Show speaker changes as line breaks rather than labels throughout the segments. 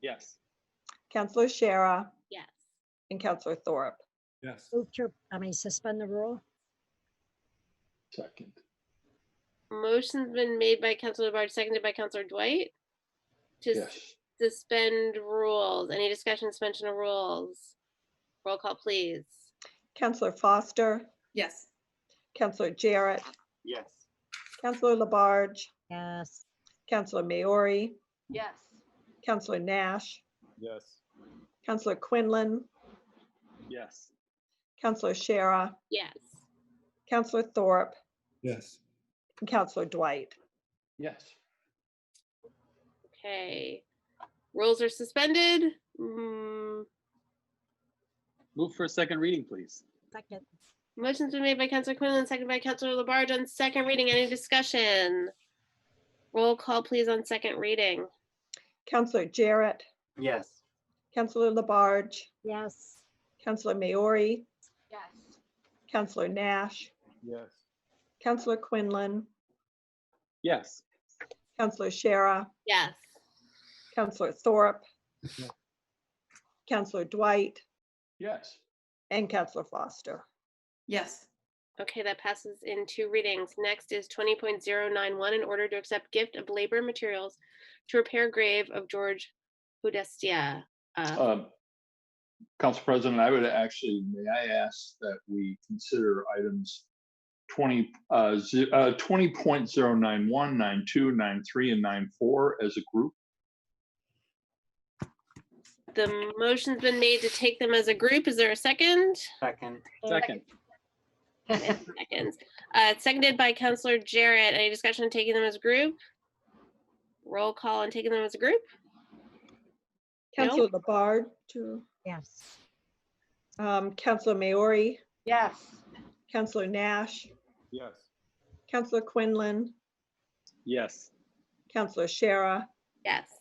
Yes.
Counselor Shara
Yes.
and Counselor Thorpe.
Yes.
Move to, I mean, suspend the rule?
Second.
Motion's been made by Counselor Labarge, seconded by Counselor Dwight to s-
Yes.
suspend rules. Any discussion, suspension of rules? Roll call, please.
Counselor Foster,
yes,
Counselor Jarrett,
Yes.
Counselor Labarge,
Yes.
Counselor Maori,
yes,
Counselor Nash,
Yes.
Counselor Quinlan,
Yes.
Counselor Shara,
Yes.
Counselor Thorpe,
Yes.
and Counselor Dwight.
Yes.
Okay. Rules are suspended. Mm,
Move for a second reading, please.
Second.
Motion's been made by Counselor Quinlan, seconded by Counselor Labarge on second reading. Any discussion? Roll call, please, on second reading.
Counselor Jarrett,
Yes.
Counselor Labarge,
Yes.
Counselor Maori,
yes.
Counselor Nash,
Yes.
Counselor Quinlan,
Yes.
Counselor Shara,
Yes.
Counselor Thorpe,
Yeah.
Counselor Dwight,
Yes.
and Counselor Foster.
yes.
Okay, that passes in two readings. Next is twenty point zero nine one, in order to accept gift of labor and materials to repair grave of George Podestia. Uh,
Um, Council President, I would actually, may I ask that we consider items twenty, uh, ze- uh, twenty point zero nine one, nine two, nine three, and nine four as a group?
The motion's been made to take them as a group. Is there a second?
Second,
Second.
Seconds. Uh, it's seconded by Counselor Jarrett. Any discussion on taking them as a group? Roll call on taking them as a group? No.
Counselor Labarge, to,
Yes.
um, Counselor Maori,
Yes.
Counselor Nash,
Yes.
Counselor Quinlan,
Yes.
Counselor Shara,
Yes.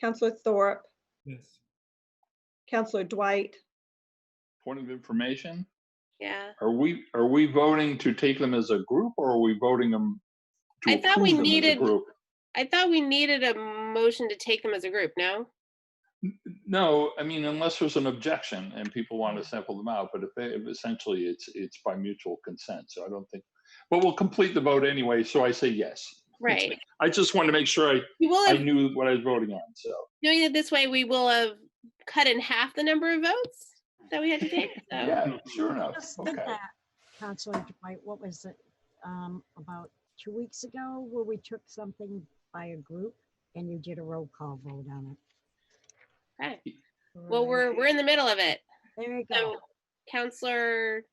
Counselor Thorpe,
Yes.
Counselor Dwight,
Point of information,
Yeah.
are we, are we voting to take them as a group or are we voting them? to
I thought we
approve them as a
needed-
group?
I thought we needed a motion to take them as a group, no?
No, I mean, unless there's an objection and people want to sample them out, but if they, if essentially it's, it's by mutual consent, so I don't think, but we'll complete the vote anyway, so I say yes.
Right.
I just wanted to make sure I,
We will
I
have,
knew what I was voting on, so.
doing it this way, we will have cut in half the number of votes that we had to take. So,
Yeah, sure enough,
Just did
okay.
that, Counselor Dwight, what was it, um, about two weeks ago where we took something by a group and you did a roll call vote on
okay.
it?
Well, we're, we're in the middle of it.
There you
So
go.
Counselor,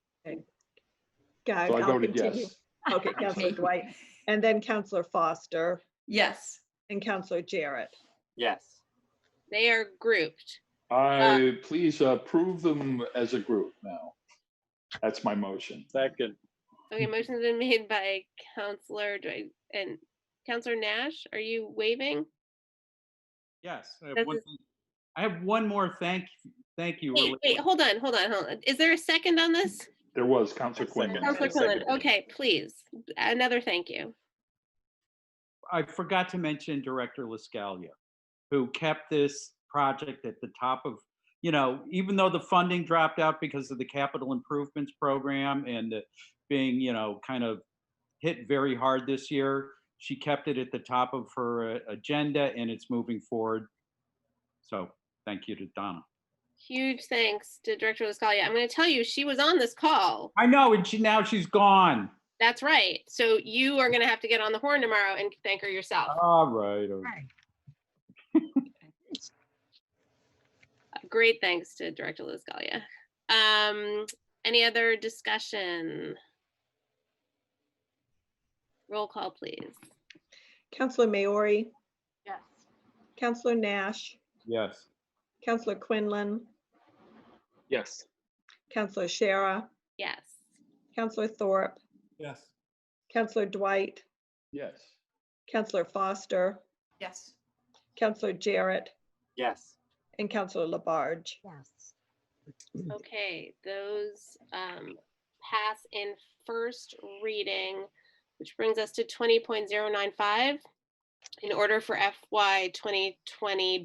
God,
So I
I'll
voted
continue.
yes.
Okay, Counselor Dwight, and then Counselor Foster
Yes,
and Counselor Jarrett.
yes.
they are grouped.
I, please approve them as a group now. That's my motion.
Second.
Okay, motion's been made by Counselor Dwight and Counselor Nash. Are you waving?
Yes, I
Does
have one,
it-
thing- I have one more thank, thank you.
Wait,
related-
wait, hold on, hold on, hold on. Is there a second on this?
There was Counselor Quinlan.
Counselor
Second.
Quinlan, okay, please. Another thank you.
I forgot to mention Director Liscalia, who kept this project at the top of, you know, even though the funding dropped out because of the capital improvements program and it being, you know, kind of hit very hard this year, she kept it at the top of her uh, agenda and it's moving forward. So thank you to Donna.
Huge thanks to Director Liscalia. I'm gonna tell you, she was on this call.
I know, and she, now she's gone.
That's right. So you are gonna have to get on the horn tomorrow and thank her yourself.
All right. oh, all right.
Great thanks to Director Liscalia. Um, any other discussion? Roll call, please.
Counselor Maori,
Yes.
Counselor Nash,
Yes.
Counselor Quinlan,
Yes.
Counselor Shara,
Yes.
Counselor Thorpe,
Yes.
Counselor Dwight,
Yes.
Counselor Foster,
yes.
Counselor Jarrett,
Yes.
and Counselor Labarge.
Yes.
Okay, those um, pass in first reading, which brings us to 20.095. In order for FY 2020